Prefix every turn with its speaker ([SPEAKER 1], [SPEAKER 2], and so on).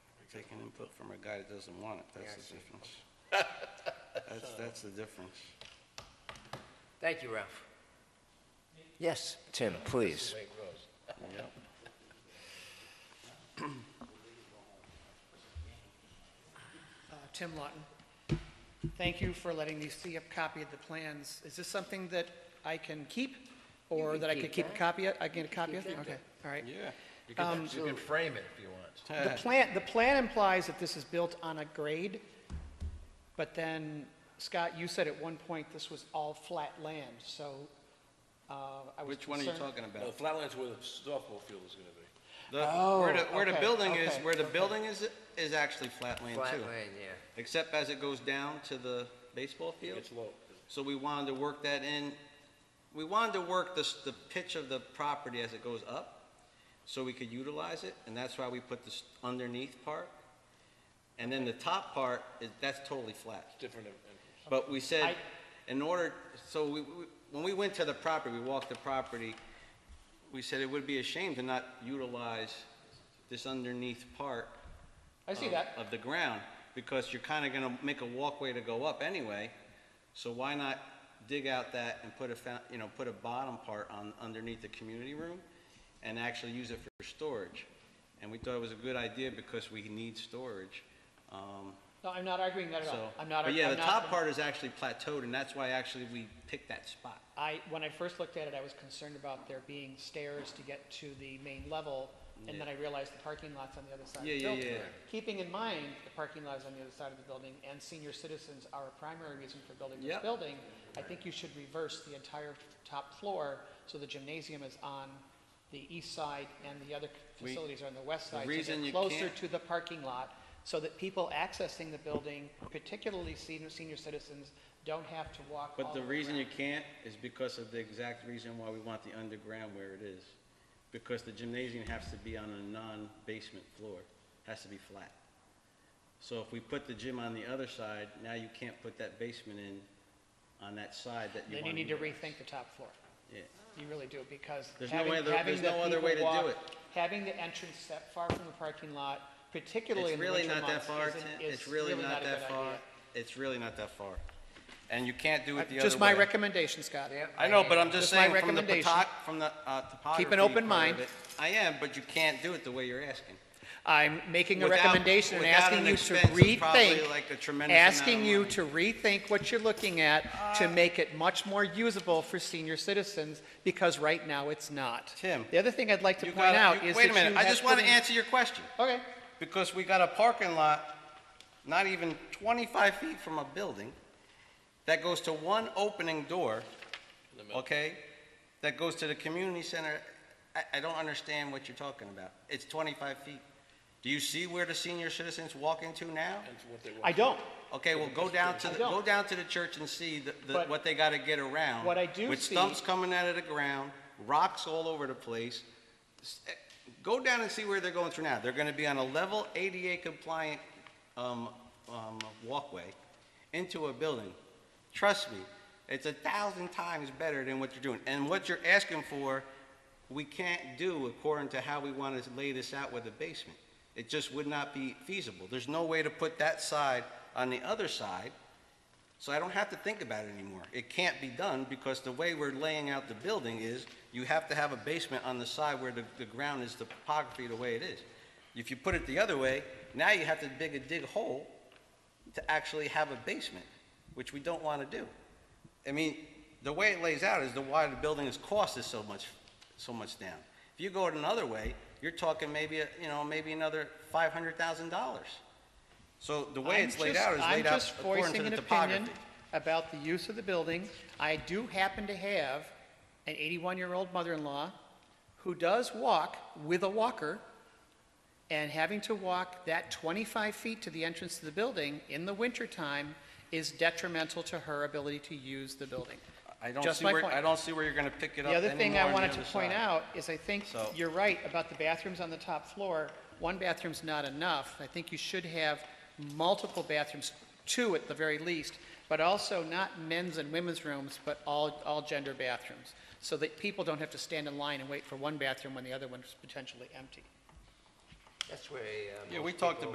[SPEAKER 1] taking input from a guy that doesn't want it,
[SPEAKER 2] Yeah, I
[SPEAKER 1] that's the
[SPEAKER 2] see.
[SPEAKER 1] difference. That's, that's the difference.
[SPEAKER 2] Thank you, Ralph.
[SPEAKER 3] Yes, Tim, please.
[SPEAKER 1] Yep.
[SPEAKER 4] Uh, Tim Lawton. Thank you for letting me see a copy of the plans. Is this something that I can keep? Or
[SPEAKER 2] can
[SPEAKER 4] that I
[SPEAKER 2] keep
[SPEAKER 4] could keep a
[SPEAKER 2] that.
[SPEAKER 4] copy of? I can get a copy of?
[SPEAKER 2] keep
[SPEAKER 4] it?
[SPEAKER 2] that.
[SPEAKER 4] Okay, all right.
[SPEAKER 1] Yeah.
[SPEAKER 5] You can, you can frame it if you want.
[SPEAKER 4] The plan, the plan implies that this is built on a grade, but then, Scott, you said at one point this was all flat land, so uh, I was
[SPEAKER 1] Which one are you
[SPEAKER 4] concerned-
[SPEAKER 1] talking about?
[SPEAKER 5] No, Flatland's where the softball field is gonna be.
[SPEAKER 1] The, where the,
[SPEAKER 4] Oh,
[SPEAKER 1] where the
[SPEAKER 4] okay,
[SPEAKER 1] building is,
[SPEAKER 4] okay,
[SPEAKER 1] where the building is, is actually flat land
[SPEAKER 2] Flat
[SPEAKER 1] too.
[SPEAKER 2] land, yeah.
[SPEAKER 1] Except as it goes down to the baseball field.
[SPEAKER 5] It's low.
[SPEAKER 1] So we wanted to work that in, we wanted to work the, s- the pitch of the property as it goes up, so we could utilize it, and that's why we put this underneath part. And then the top part, is, that's totally flat.
[SPEAKER 5] Different than-
[SPEAKER 1] But we said,
[SPEAKER 4] I-
[SPEAKER 1] in order, so we, we- when we went to the property, we walked the property, we said it would be a shame to not utilize this underneath part
[SPEAKER 4] I see
[SPEAKER 1] of-
[SPEAKER 4] that.
[SPEAKER 1] Of the ground, because you're kind of going to make a walkway to go up anyway, so why not dig out that and put a, fou- you know, put a bottom part on, underneath the community room, and actually use it for storage? And we thought it was a good idea because we need storage, um,
[SPEAKER 4] No, I'm not arguing that at
[SPEAKER 1] so.
[SPEAKER 4] all. I'm not,
[SPEAKER 1] But
[SPEAKER 4] I'm
[SPEAKER 1] yeah, the top
[SPEAKER 4] not,
[SPEAKER 1] part is actually plateaued, and that's why actually we picked that spot.
[SPEAKER 4] I, when I first looked at it, I was concerned about there being stairs to get to the main level, and then I realized the parking lot's on the other side of
[SPEAKER 1] Yeah,
[SPEAKER 4] the
[SPEAKER 1] yeah,
[SPEAKER 4] building.
[SPEAKER 1] yeah.
[SPEAKER 4] Keeping in mind, the parking lot is on the other side of the building, and senior citizens are a primary reason for building this
[SPEAKER 1] Yep.
[SPEAKER 4] building, I think you should reverse the entire top floor, so the gymnasium is on the east side, and the other
[SPEAKER 1] We-
[SPEAKER 4] facilities are on the west
[SPEAKER 1] the
[SPEAKER 4] side. so they're
[SPEAKER 1] reason you
[SPEAKER 4] Closer
[SPEAKER 1] can't-
[SPEAKER 4] to the parking lot, so that people accessing the building, particularly senior, senior citizens, don't have to walk all
[SPEAKER 1] But
[SPEAKER 4] the
[SPEAKER 1] the
[SPEAKER 4] way
[SPEAKER 1] reason
[SPEAKER 4] around.
[SPEAKER 1] you can't is because of the exact reason why we want the underground where it is. Because the gymnasium has to be on a non-basement floor, has to be flat. So if we put the gym on the other side, now you can't put that basement in on that side that you
[SPEAKER 4] Then
[SPEAKER 1] want.
[SPEAKER 4] you need to rethink the top floor.
[SPEAKER 1] Yeah.
[SPEAKER 4] You really do, because
[SPEAKER 1] There's no
[SPEAKER 4] having,
[SPEAKER 1] way other-
[SPEAKER 4] having
[SPEAKER 1] there's
[SPEAKER 4] the
[SPEAKER 1] no other
[SPEAKER 4] people
[SPEAKER 1] way to do
[SPEAKER 4] walk,
[SPEAKER 1] it.
[SPEAKER 4] having the entrance set far from the parking lot, particularly
[SPEAKER 1] It's
[SPEAKER 4] in the
[SPEAKER 1] really
[SPEAKER 4] winter
[SPEAKER 1] not that
[SPEAKER 4] months,
[SPEAKER 1] far,
[SPEAKER 4] isn't-
[SPEAKER 1] Tim.
[SPEAKER 4] is
[SPEAKER 1] it's really not
[SPEAKER 4] a good
[SPEAKER 1] that far.
[SPEAKER 4] idea. Uh,
[SPEAKER 1] It's really not that far. And you can't do it the other way.
[SPEAKER 4] Just my recommendation, Scott.
[SPEAKER 2] Yeah.
[SPEAKER 1] I know, but I'm just
[SPEAKER 4] Just my
[SPEAKER 1] saying, from the
[SPEAKER 4] recommendation.
[SPEAKER 1] potok, from the uh, topography.
[SPEAKER 4] open
[SPEAKER 1] part of
[SPEAKER 4] mind.
[SPEAKER 1] it, I am, but you can't do it the way you're asking.
[SPEAKER 4] I'm making a
[SPEAKER 1] Without-
[SPEAKER 4] recommendation and
[SPEAKER 1] without
[SPEAKER 4] asking
[SPEAKER 1] an
[SPEAKER 4] you to
[SPEAKER 1] expense of probably, like, a
[SPEAKER 4] rethink,
[SPEAKER 1] tremendous amount of
[SPEAKER 4] asking you
[SPEAKER 1] money. Uh,
[SPEAKER 4] to rethink what you're looking at to make it much more usable for senior citizens, because right now it's not.
[SPEAKER 1] Tim,
[SPEAKER 4] The other thing I'd like to
[SPEAKER 1] You
[SPEAKER 4] point
[SPEAKER 1] gotta-
[SPEAKER 4] out
[SPEAKER 1] you-
[SPEAKER 4] is that
[SPEAKER 1] Wait
[SPEAKER 4] you
[SPEAKER 1] a minute, I
[SPEAKER 4] have
[SPEAKER 1] just want to
[SPEAKER 4] put in-
[SPEAKER 1] answer your question,
[SPEAKER 4] Okay,
[SPEAKER 1] because we got a parking lot, not even 25 feet from a building, that goes to one opening door, okay? That goes to the community center. I, I don't understand what you're talking about. It's 25 feet. Do you see where the senior citizens walk into now?
[SPEAKER 5] That's what they want.
[SPEAKER 4] I don't.
[SPEAKER 1] Okay, well, go down to, the
[SPEAKER 4] I don't.
[SPEAKER 1] go down to the church and see the, the,
[SPEAKER 4] But
[SPEAKER 1] what they gotta get around.
[SPEAKER 4] what I do
[SPEAKER 1] With
[SPEAKER 4] see-
[SPEAKER 1] stumps coming out of the ground, rocks all over the place. S- eh, Go down and see where they're going through now. They're gonna be on a level ADA compliant, um, um, walkway into a building. Trust me, it's a thousand times better than what you're doing. And what you're asking for, we can't do according to how we want to lay this out with the basement. It just would not be feasible. There's no way to put that side on the other side, so I don't have to think about it anymore. It can't be done because the way we're laying out the building is you have to have a basement on the side where the, the ground is the topography the way it is. If you put it the other way, now you have to dig a dig hole to actually have a basement, which we don't want to do. I mean, the way it lays out is the why the building is cost is so much, so much down. If you go it another way, you're talking maybe, a- you know, maybe another five hundred thousand dollars. So the way
[SPEAKER 4] I'm
[SPEAKER 1] it's laid
[SPEAKER 4] just-
[SPEAKER 1] out is laid
[SPEAKER 4] I'm
[SPEAKER 1] out
[SPEAKER 4] just
[SPEAKER 1] according to
[SPEAKER 4] voicing
[SPEAKER 1] the
[SPEAKER 4] an
[SPEAKER 1] topography.
[SPEAKER 4] opinion about the use of the building. I do happen to have an 81-year-old mother-in-law who does walk with a walker, and having to walk that 25 feet to the entrance to the building in the wintertime is detrimental to her ability to use the building.
[SPEAKER 1] I don't
[SPEAKER 4] Just
[SPEAKER 1] see
[SPEAKER 4] my
[SPEAKER 1] where,
[SPEAKER 4] point.
[SPEAKER 1] I don't see where you're gonna pick it up
[SPEAKER 4] The other thing
[SPEAKER 1] anymore
[SPEAKER 4] I
[SPEAKER 1] on the
[SPEAKER 4] wanted to
[SPEAKER 1] other
[SPEAKER 4] point
[SPEAKER 1] side.
[SPEAKER 4] out is I think
[SPEAKER 1] So-
[SPEAKER 4] you're right about the bathrooms on the top floor. One bathroom's not enough. I think you should have multiple bathrooms, two at the very least, but also not men's and women's rooms, but all, all gender bathrooms, so that people don't have to stand in line and wait for one bathroom when the other one's potentially empty.
[SPEAKER 2] That's where, uh,
[SPEAKER 1] Yeah,
[SPEAKER 2] most
[SPEAKER 1] we talked
[SPEAKER 2] people-